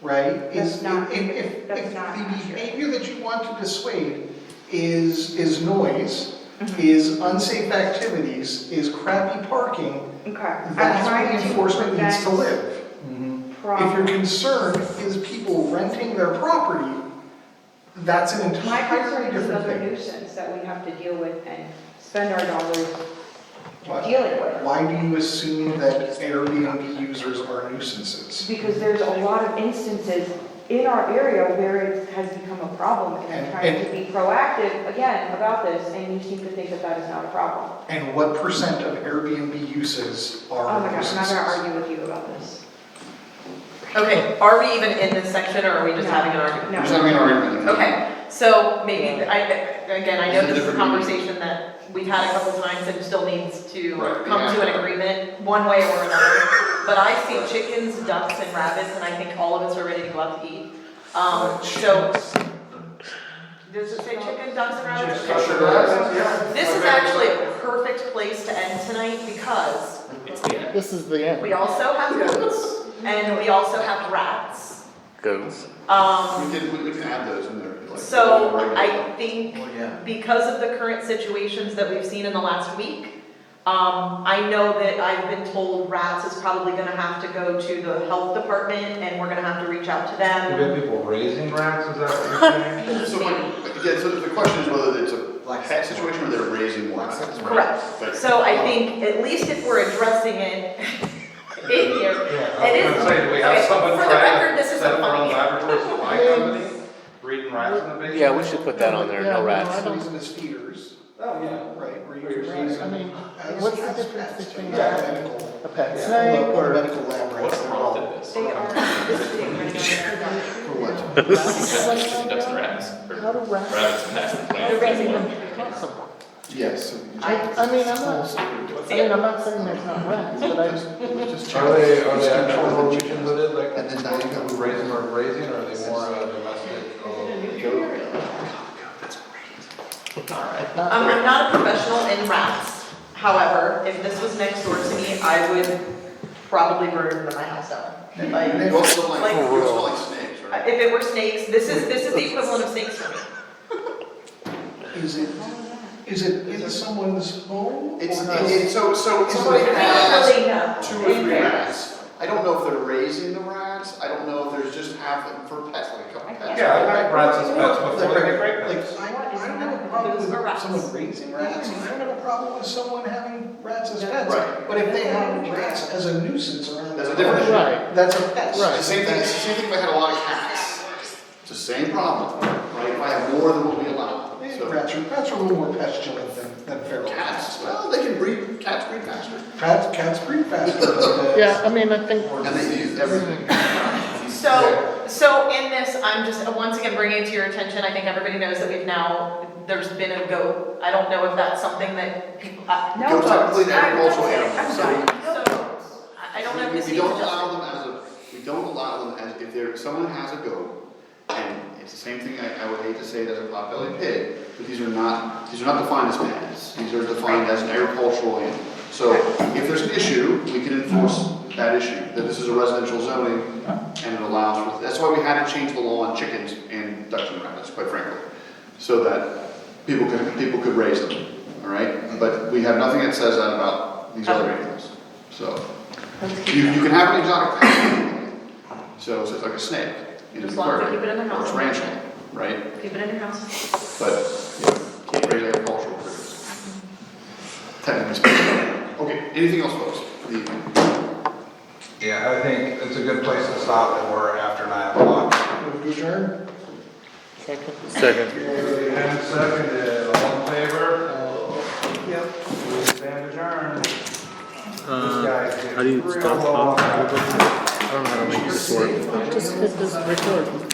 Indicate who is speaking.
Speaker 1: right?
Speaker 2: That's
Speaker 1: Is
Speaker 2: not-
Speaker 1: if- if-
Speaker 2: that's
Speaker 1: if
Speaker 2: not
Speaker 1: the
Speaker 2: accurate.
Speaker 1: behavior that you want to dissuade is, is noise,
Speaker 2: Mm-hmm.
Speaker 1: is unsafe activities, is crappy parking,
Speaker 2: Okay, I'm
Speaker 1: that's where
Speaker 2: trying
Speaker 1: the
Speaker 2: to
Speaker 1: enforcement needs to
Speaker 2: prevent
Speaker 1: live. If your
Speaker 2: problems.
Speaker 1: concern is people renting their property, that's an
Speaker 2: My
Speaker 1: entirely
Speaker 2: concern is
Speaker 1: different
Speaker 2: another
Speaker 1: thing.
Speaker 2: nuisance that we have to deal with and spend our dollars
Speaker 1: Why-
Speaker 2: dealing with.
Speaker 1: Why do you assume that Airbnb users are nuisances?
Speaker 2: Because there's a lot of instances in our area where it has become a problem and I'm
Speaker 1: And-
Speaker 2: trying
Speaker 1: and-
Speaker 2: to be proactive again about this and you seem to think that that is not a problem.
Speaker 1: And what percent of Airbnb uses
Speaker 2: Oh my
Speaker 1: are
Speaker 2: gosh, I'm not
Speaker 1: nuisances?
Speaker 2: gonna argue with you about this.
Speaker 3: Okay, are we even in this section or are we just
Speaker 2: No.
Speaker 3: having an argument?
Speaker 2: No.
Speaker 4: There's not an argument.
Speaker 3: Okay, so maybe, I, again, I know
Speaker 4: It's a
Speaker 3: this is a
Speaker 4: different
Speaker 3: conversation that we've had a couple times and still needs to
Speaker 4: Right,
Speaker 3: come
Speaker 4: yeah.
Speaker 3: to an agreement, one way or another. But I see chickens, ducks, and rabbits, and I think all of us are ready to go out to eat. Um, so, does it say chicken, ducks, and rabbits?
Speaker 4: Just sugar rabbits,
Speaker 3: This is actually a perfect place to end tonight because
Speaker 5: It's the end.
Speaker 6: This is the end.
Speaker 3: we also have goats and we also have rats.
Speaker 6: Goes.
Speaker 3: Um,
Speaker 4: We did, we we can add those in there. if you'd like.
Speaker 3: So
Speaker 4: Regular.
Speaker 3: I think because of the current situations that we've seen in the last week, um, I know that I've been told rats is probably gonna have to go to the health department and we're gonna have to reach out to
Speaker 7: You
Speaker 3: them.
Speaker 7: got people raising rats, is that what you're saying?
Speaker 4: So when, again, so the question is whether it's a pet situation or they're raising one.
Speaker 3: Correct. So I
Speaker 4: um,
Speaker 3: think at least if we're addressing it in here,
Speaker 7: Yeah,
Speaker 3: It is-
Speaker 7: I was gonna say, do we have
Speaker 3: okay,
Speaker 7: someone
Speaker 3: for the
Speaker 7: trying
Speaker 3: record,
Speaker 7: to
Speaker 3: this is
Speaker 7: set up
Speaker 3: a
Speaker 7: their own
Speaker 3: funny-
Speaker 7: laboratories at my company, breeding rats in the basement?
Speaker 6: Yeah, we should put that on there,
Speaker 1: Yeah,
Speaker 6: no rats.
Speaker 1: No, reason is feeders,
Speaker 7: Oh, yeah.
Speaker 1: right, where you
Speaker 7: Where you're
Speaker 1: can
Speaker 7: raising-
Speaker 6: I mean,
Speaker 1: As-
Speaker 6: what's the
Speaker 1: as
Speaker 6: difference
Speaker 1: pets,
Speaker 6: between
Speaker 1: yeah,
Speaker 7: that-
Speaker 1: medical-
Speaker 6: a pet
Speaker 7: Yeah.
Speaker 6: snake
Speaker 1: Or
Speaker 6: or?
Speaker 1: medical lab
Speaker 5: What
Speaker 1: rats, they're all-
Speaker 5: prompted this?
Speaker 2: They are visiting
Speaker 1: for
Speaker 2: right
Speaker 1: what?
Speaker 5: Chickens, ducks, and
Speaker 6: How
Speaker 5: rabbits. or
Speaker 6: do rats?
Speaker 5: Rabbits and that's the plan.
Speaker 2: They're raising them.
Speaker 3: Um,
Speaker 4: Yes. so we
Speaker 6: I,
Speaker 4: just-
Speaker 6: I mean, I'm not, I mean, I'm not saying there's not rats, but I just,
Speaker 4: we just check.
Speaker 7: Are they, are
Speaker 4: Just
Speaker 7: they
Speaker 4: check
Speaker 7: actual
Speaker 4: for the
Speaker 7: Norwegian hooded, like,
Speaker 4: And then now you got-
Speaker 7: who raise them are raising, or are they more uh, domestic? or-
Speaker 6: not
Speaker 3: Um, I'm not a professional in rats. However, if this was next door to me, I would probably murder my house down. Like,
Speaker 4: You also like,
Speaker 3: Like-
Speaker 4: you also like snakes, right?
Speaker 3: If it were snakes, this is, this is the equivalent of snakes for me.
Speaker 1: Is it, is it in someone's home?
Speaker 4: It's,
Speaker 1: or
Speaker 4: it's, it's- so, so if somebody
Speaker 1: Somebody
Speaker 4: has
Speaker 3: Really, no.
Speaker 4: two or three rats, I don't know if they're raising the rats, I don't know if there's just half of them for pets, like a couple pets.
Speaker 7: Yeah, I like rats as pets
Speaker 1: Like,
Speaker 7: before they get
Speaker 1: like,
Speaker 7: pregnant.
Speaker 1: I,
Speaker 2: What is
Speaker 1: I don't have a
Speaker 2: happening?
Speaker 1: problem
Speaker 3: Those
Speaker 1: with
Speaker 3: are rats.
Speaker 1: someone raising rats, and I don't have a problem with someone having rats as pets.
Speaker 4: Right.
Speaker 1: But if they have rats as a nuisance around.
Speaker 4: That's a
Speaker 1: their
Speaker 4: different
Speaker 1: home,
Speaker 6: Right.
Speaker 1: That's a pest.
Speaker 4: It's the same thing, it's the same thing if I had a lot of cats, it's the same problem, right, if I have more than what we allow,
Speaker 1: Eh,
Speaker 4: so.
Speaker 1: Rats are, rats are a little more pestilent than, than feral
Speaker 4: Cats,
Speaker 1: cats.
Speaker 4: well, they can breed, cats breed faster,
Speaker 1: Cats, cats breed faster. than-
Speaker 6: Yeah, I mean, I think,
Speaker 4: and they use everything.
Speaker 3: So, so in this, I'm just, uh, once again, bringing it to your attention, I think everybody knows that we've now, there's been a goat. I don't know if that's something that people, uh, I,
Speaker 2: now. No
Speaker 4: Goats are completely
Speaker 2: I'm-
Speaker 4: agricultural
Speaker 2: I'm
Speaker 4: animals,
Speaker 2: done.
Speaker 4: so-
Speaker 3: so, I- I don't know if
Speaker 4: We-
Speaker 3: this
Speaker 4: We
Speaker 3: needs
Speaker 4: don't
Speaker 3: adjustment.
Speaker 4: allow them as a, we don't allow them as, if there, someone has a goat, and it's the same thing, I, I would hate to say it as a potbelly pig, but these are not, these are not defined as pets, these are defined as an agricultural animal. So if there's an issue, we can enforce that issue, that this is a residential zoning, and it allows, for that's why we had to change the law on chickens and ducks and rabbits, quite frankly. So that people could, people could raise them, all right? But we have nothing that says that about these other animals, so. You, you can have an exotic pet, so, so it's like a snake in the
Speaker 3: As long as
Speaker 4: garden.
Speaker 3: you keep it in the house.
Speaker 4: Or it's ranching, right?
Speaker 3: Keep it in your house.
Speaker 4: But, yeah, can't raise agricultural critters. Technically speaking. Okay, anything else, folks? The,
Speaker 7: Yeah, I think it's a good place to stop, and we're after nine o'clock.
Speaker 1: Move to adjourn?
Speaker 6: second. Second.
Speaker 7: And seconded, all in favor?
Speaker 1: Yep.
Speaker 7: We stand adjourned. This guy's getting
Speaker 6: Uh, how do you
Speaker 7: real
Speaker 6: stop
Speaker 7: long.
Speaker 6: I don't know how to make this work. Just hit this record.